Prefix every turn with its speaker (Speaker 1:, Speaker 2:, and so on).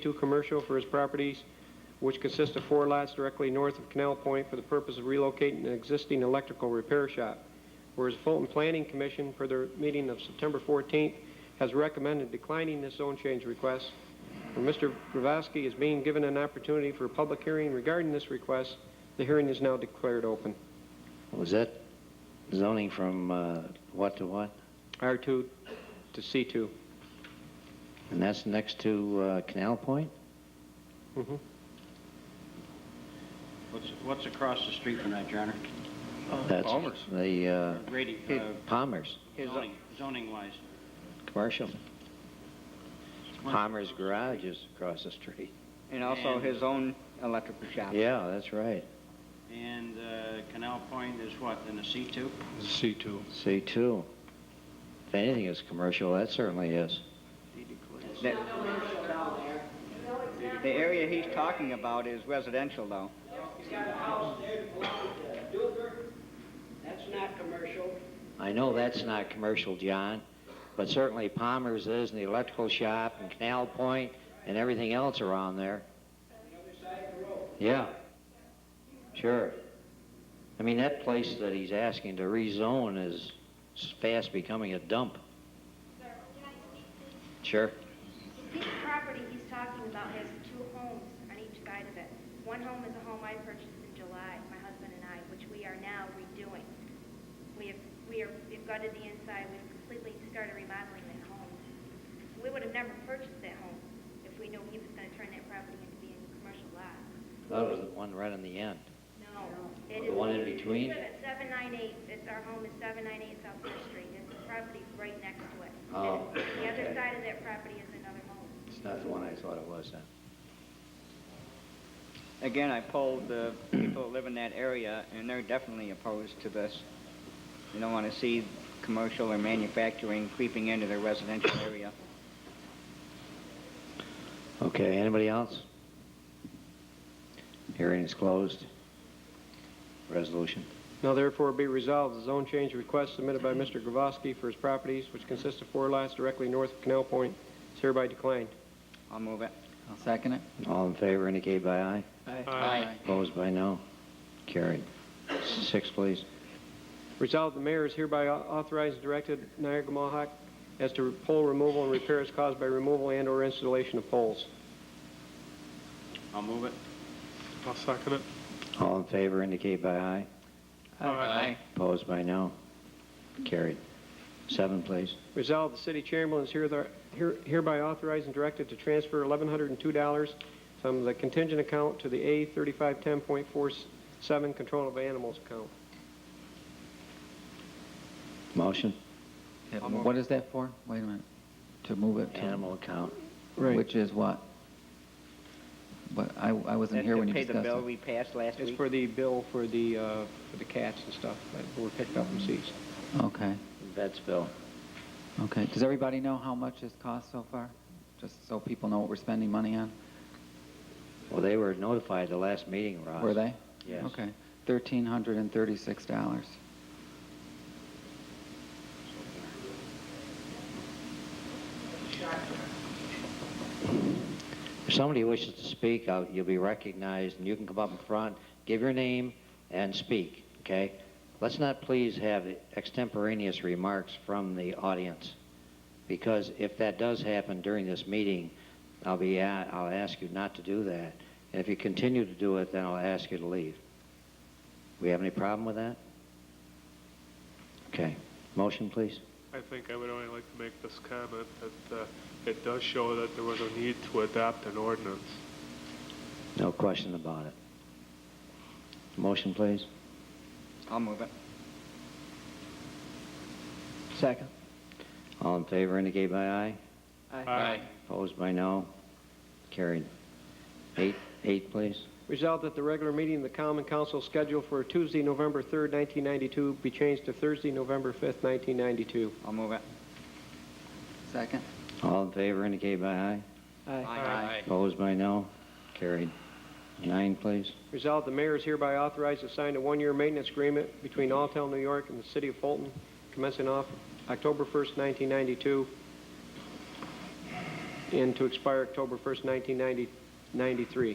Speaker 1: two commercial for his properties, which consist of four lots directly north of Canal Point for the purpose of relocating an existing electrical repair shop. Whereas Fulton Planning Commission, for their meeting of September 14th, has recommended declining this zone change request. And Mr. Gravoski is being given an opportunity for a public hearing regarding this request. The hearing is now declared open.
Speaker 2: Was that zoning from uh, what to what?
Speaker 1: R2 to C2.
Speaker 2: And that's next to uh, Canal Point?
Speaker 1: Mhm.
Speaker 3: What's, what's across the street from that, Your Honor? Oh,
Speaker 2: That's The uh,
Speaker 3: Grady, uh,
Speaker 2: Palmer's,
Speaker 3: zoning, zoning wise.
Speaker 2: commercial. Palmer's Garage is across the street.
Speaker 4: And also
Speaker 3: And-
Speaker 5: uh,
Speaker 4: his own electrical shop.
Speaker 2: Yeah, that's right.
Speaker 3: And, uh, Canal Point is what, in a C two?
Speaker 6: C2.
Speaker 2: C2. If anything is commercial, that certainly is.
Speaker 4: The the area he's talking about is residential though.
Speaker 7: That's not commercial.
Speaker 2: I know that's not commercial, John, but certainly Palmer's is, and the electrical shop, and Canal Point, and everything else around there. Yeah. Sure. I mean, that place that he's asking to rezone is fast becoming a dump.
Speaker 8: Sir, can I speak, please?
Speaker 2: Sure.
Speaker 8: This property he's talking about has two homes on each side of it. One home is a home I purchased in July, my husband and I, which we are now redoing. We have, we are, we've gutted the inside, we've completely started remodeling that home. We would have never purchased that home if we knew he was gonna turn that property into being a commercial lot.
Speaker 2: That was the one right in the end.
Speaker 8: No. it
Speaker 2: The
Speaker 8: is-
Speaker 2: one in between?
Speaker 8: It's at seven nine eight, it's, our home is seven nine eight South First Street, it's the property right next to it.
Speaker 2: Oh,
Speaker 8: The other
Speaker 2: okay.
Speaker 8: side of that property is another home.
Speaker 2: It's not the one I thought it was then.
Speaker 4: Again, I polled the people that live in that area and they're definitely opposed to this. They don't want to see commercial or manufacturing creeping into their residential area.
Speaker 2: Okay, anybody else? Hearing is closed. Resolution.
Speaker 1: Now therefore be resolved, the zone change request submitted by Mr. Gravoski for his properties, which consist of four lots directly north of Canal Point, is hereby declined.
Speaker 4: I'll move it.
Speaker 5: I'll second it.
Speaker 2: All in favor indicate by aye.
Speaker 5: Aye.
Speaker 2: Opposed by no. Carried. Six, please.
Speaker 1: Resolved, the mayor is hereby au- authorized and directed Niagara Mohawk as to pole removal and repairs caused by removal and/or installation of poles.
Speaker 3: I'll move it.
Speaker 6: I'll second it.
Speaker 2: All in favor indicate by aye.
Speaker 6: Aye.
Speaker 2: Opposed by no. Carried. Seven, please.
Speaker 1: Resolved, the city chairman is hereth- here- hereby authorized and directed to transfer $1,102 from the contingent account to the A3510.47 control of animals account.
Speaker 2: Motion?
Speaker 5: Yeah, What is that for? Wait a minute. To move it to,
Speaker 2: Animal account.
Speaker 5: which is what? But I, I wasn't
Speaker 4: That's
Speaker 5: here
Speaker 4: to
Speaker 5: when you
Speaker 4: pay the
Speaker 5: discussed
Speaker 4: bill
Speaker 5: it.
Speaker 4: we passed last
Speaker 1: It's
Speaker 4: week.
Speaker 1: for the bill for the, uh, for the cats and stuff that were picked up and seized.
Speaker 5: Okay,
Speaker 2: Vets bill.
Speaker 5: okay. Does everybody know how much it's cost so far? Just so people know what we're spending money on?
Speaker 2: Well, they were notified the last meeting, Ross.
Speaker 5: Were they?
Speaker 2: Yes.
Speaker 5: Okay, thirteen hundred and thirty-six dollars.
Speaker 2: If somebody wishes to speak, I'll- you'll be recognized, and you can come up in front, give your name, and speak, okay? Let's not please have extemporaneous remarks from the audience, because if that does happen during this meeting, I'll be, a- I'll ask you not to do that. And if you continue to do it, then I'll ask you to leave. We have any problem with that? Okay. Motion, please.
Speaker 6: I think I would only like to make this comment that uh, it does show that there was a need to adopt an ordinance.
Speaker 2: No question about it. Motion, please.
Speaker 4: I'll move it.
Speaker 5: Second.
Speaker 2: All in favor indicate by aye.
Speaker 6: Aye.
Speaker 2: Opposed by no. Carried. Eight, eight, please.
Speaker 1: Resolved that the regular meeting of the common council scheduled for Tuesday, November 3rd, 1992 be changed to Thursday, November 5th, 1992.
Speaker 4: I'll move it.
Speaker 5: Second?
Speaker 2: All in favor indicate by aye. Opposed by no. Carried. Nine, please.
Speaker 1: Resolved, the mayor is hereby authorized to sign a one-year maintenance agreement between Alltel New York and the city of Fulton commencing off October 1st, 1992. and to expire October 1st, 1993.